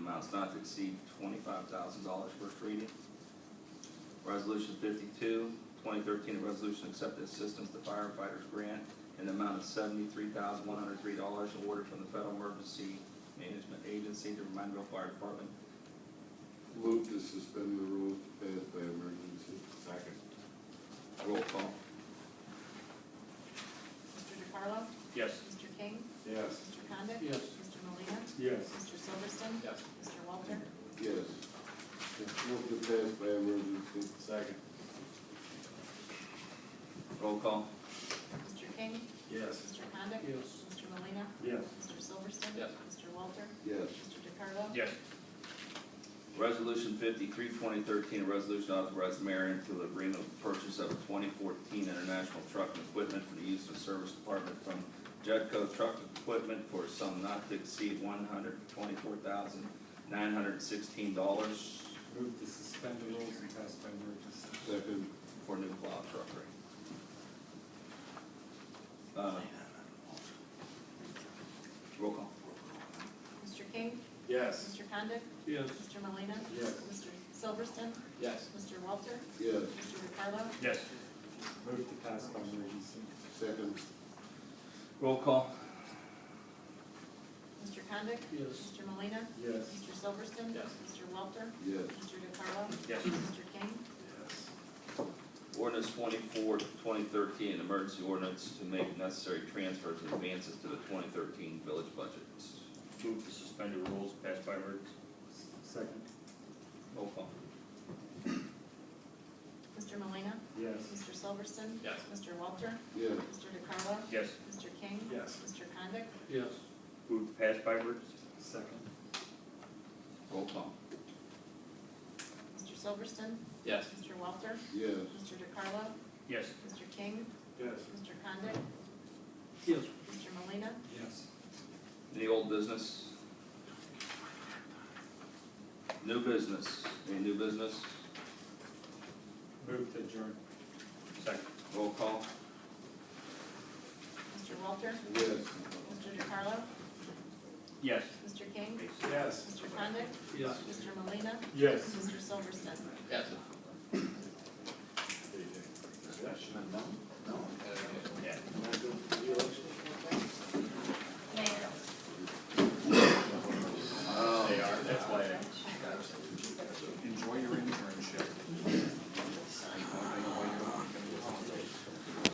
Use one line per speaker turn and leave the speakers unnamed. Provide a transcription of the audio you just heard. amounts not to exceed twenty-five thousand dollars, first reading. Resolution 52, 2013, a resolution accepting assistance to firefighters grant in the amount of seventy-three thousand one hundred three dollars awarded from the Federal Emergency Management Agency to Reminderville Fire Department.
Move to suspend the rules passed by emergency. Second.
Roll call.
Mr. DeCarlo?
Yes.
Mr. King?
Yes.
Mr. Condit?
Yes.
Mr. Molina,
Yes.
Mr. Silverston?
Yes.
Mr. Walter?
Yes. Move to pass by emergency.
Second.
Roll call.
Mr. King?
Yes.
Mr. Condit?
Yes.
Mr. Molina,
Yes.
Mr. Silverston?
Yes.
Mr. Walter?
Yes.
Mr. DeCarlo?
Yes.
Resolution 53, 2013, a resolution authorizing mayor into the agreement of purchase of a twenty fourteen international truck and equipment for the use of service department from Judco Truck Equipment for a sum not to exceed one hundred twenty-four thousand nine hundred sixteen dollars
Move to suspend the rules and pass by emergency.
Second.
for new plow truck rate. Uh, Roll call.
Mr. King?
Yes.
Mr. Condit?
Yes.
Mr. Molina,
Yes.
Mr. Silverston?
Yes.
Mr. Walter?
Yes.
Mr. DeCarlo?
Yes.
Move to pass by emergency.
Second.
Roll call.
Mr. Condit?
Yes.
Mr. Molina,
Yes.
Mr. Silverston?
Yes.
Mr. Walter?
Yes.
Mr. DeCarlo?
Yes.
Mr. King?
Ordinance 24, 2013, an emergency ordinance to make necessary transfers and advances to the twenty thirteen village budget.
Move to suspend the rules, pass by emergency.
Second.
Roll call.
Mr. Molina,
Yes.
Mr. Silverston?
Yes.
Mr. Walter?
Yes.
Mr. DeCarlo?
Yes.
Mr. King?
Yes.
Mr. Condit?
Yes. Move to pass by emergency.
Second.
Roll call.
Mr. Silverston?
Yes.
Mr. Walter?
Yes.
Mr. DeCarlo?
Yes.
Mr. King?
Yes.
Mr. Condit?
Yes.
Mr. Molina,
Yes.
Any old business? New business, any new business?
Move to adjourn.
Second.
Roll call.
Mr. Walter?
Yes.
Mr. DeCarlo?
Yes.
Mr. King?
Yes.
Mr. Condit?
Yes.
Mr. Molina,
Yes.
Mr. Silverston?
Yes.
Yes.